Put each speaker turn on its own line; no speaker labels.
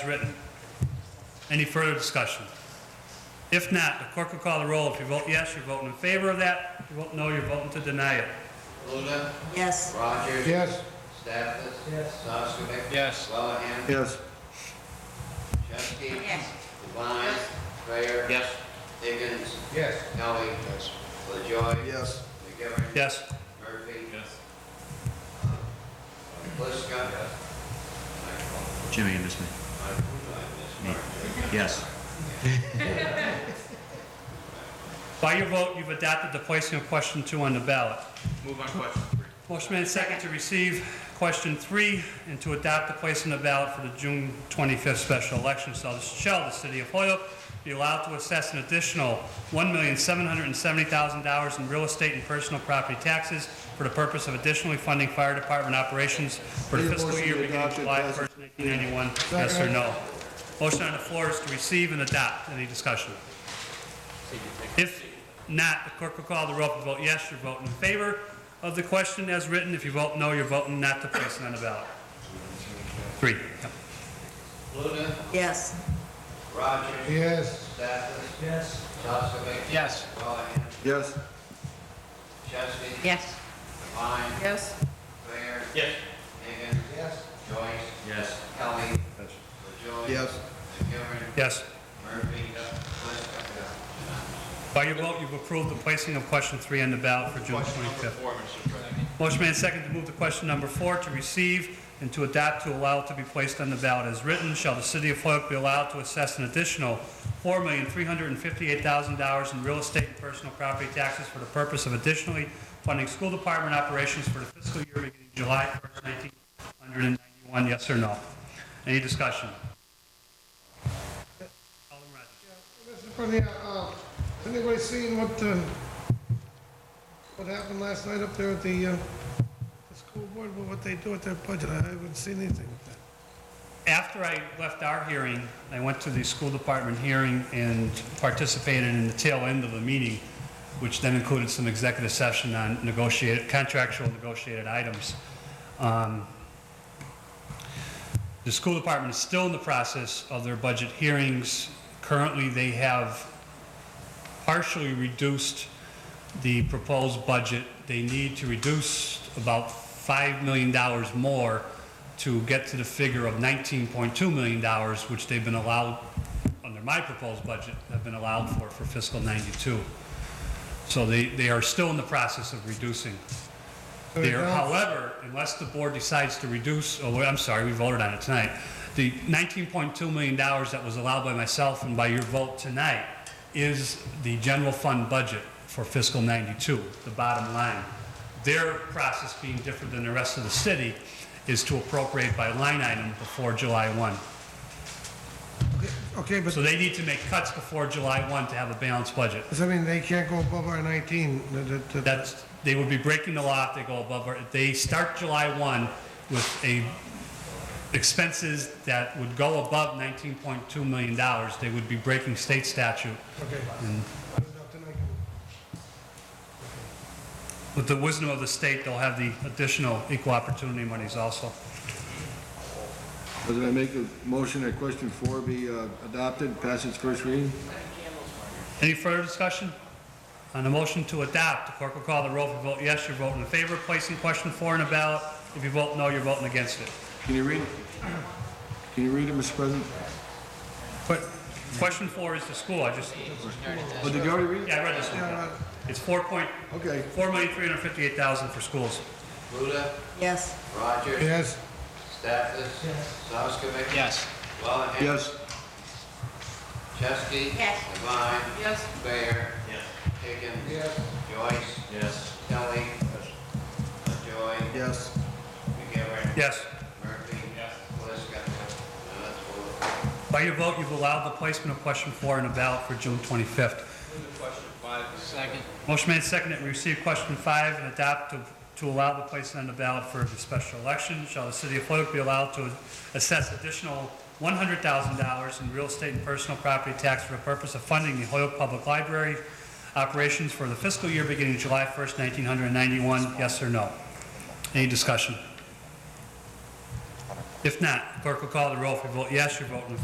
written. Any further discussion? If not, the clerk will call the roll. If you vote yes, you're voting in favor of that. If you vote no, you're voting to deny it.
Luna,
Yes.
Rogers.
Yes.
Stathis.
Yes.
Soskovic.
Yes.
Lelland.
Yes.
Chesky.
Yes.
Devine. Strayer.
Yes.
Higgins.
Yes.
Kelly. LaJoy.
Yes.
McGivern.
Yes,
Murphy. Uh,
Yes.
Bliska.
Jimmy, you missed me. Yes.
by your vote, you've adopted the placing of question two on the ballot.
Move on question three.
Motion made second to receive question three and to adopt the place on the ballot for the June 25th special election. So shall the city of Hoyoke be allowed to assess an additional $1,770,000 in real estate and personal property taxes for the purpose of additionally funding fire department operations for the
Need a
fiscal
motion
year
to
beginning
adopt it,
July
President.
1st, 1991? Yes or
Second.
no? Motion on the floor is to receive and adopt. Any discussion? If not, the clerk will call the roll. If you vote yes, you're voting in favor of the question as written. If you vote no, you're voting not to place it on the ballot. Three. Yep.
Luna,
Yes.
Rogers.
Yes.
Stathis.
Yes.
Soskovic.
Yes.
Lelland.
Yes.
Chesky.
Yes.
Devine.
Yes.
Strayer.
Yes.
Higgins.
Yes.
Joyce.
Yes.
Kelly. LaJoy.
Yes.
McGivern.
Yes.
Murphy. Bliska.
By your vote, you've approved the placing of question three on the ballot for June 25th.
Four, Mr. President.
Motion made second to move to question number four, to receive and to adopt to allow to be placed on the ballot as written. Shall the city of Hoyoke be allowed to assess an additional $4,358,000 in real estate and personal property taxes for the purpose of additionally funding school department operations for the fiscal year beginning July 1st, 1991? Yes or no? Any discussion? Alderman Rogers.
Mr. President, uh, anybody seen what, uh, what happened last night up there at the, uh, the school board, with what they do with their budget? I haven't seen anything of that.
After I left our hearing, I went to the school department hearing and participated in the tail end of the meeting, which then included some executive session on negotiated, contractual negotiated items. Um, The school department is still in the process of their budget hearings. Currently, they have partially reduced the proposed budget. They need to reduce about $5 million more to get to the figure of $19.2 million, which they've been allowed, under my proposed budget, have been allowed for, for fiscal 92. So they, they are still in the process of reducing.
So
There,
now-
however, unless the board decides to reduce, oh, wait, I'm sorry, we voted on it tonight. The $19.2 million that was allowed by myself and by your vote tonight is the general fund budget for fiscal 92, the bottom line. Their process being different than the rest of the city is to appropriate by line item before July 1.
Okay, but
So they need to make cuts before July 1 to have a balanced budget.
does that mean they can't go above our nineteen? That- that- that-
That's, they would be breaking the law if they go above, our- if they start July 1 with a expenses that would go above $19.2 million, they would be breaking state statute.
Okay.
With the wisdom of the state, they'll have the additional equal opportunity monies also.
President, I make a motion that question four be uh, adopted, pass its first reading?
Any further discussion? On the motion to adopt, the clerk will call the roll. If you vote yes, you're voting in favor of placing question four on the ballot. If you vote no, you're voting against it.
Can you read it? Can you read it, Mr. President?
But question four is the school, I just,
Oh, did you already read it?
yeah, I read this one. yeah. It's four point,
Okay.
four million, three hundred and fifty-eight thousand for schools.
Luda,
Yes.
Rogers.
Yes.
Stathis. Soskovic.
Yes.
Lelland.
Yes.
Chesky.
Yes.
Devine.
Yes.
Strayer.
Yes.
Higgins.
Yes.
Joyce.
Yes.
Kelly. LaJoy.
Yes.
McGivern.
Yes.
Murphy.
Yes.
Bliska. Now let's vote.
By your vote, you've allowed the placement of question four on the ballot for June 25th.
Second.
Motion made second that we receive question five and adopt to, to allow the placement on the ballot for the special election. Shall the city of Hoyoke be allowed to assess additional $100,000 in real estate and personal property tax for the purpose of funding the Hoyoke Public Library operations for the fiscal year beginning July 1st, 1991? Yes or no? Any discussion? If not, clerk will call the roll. If you vote yes, you're voting in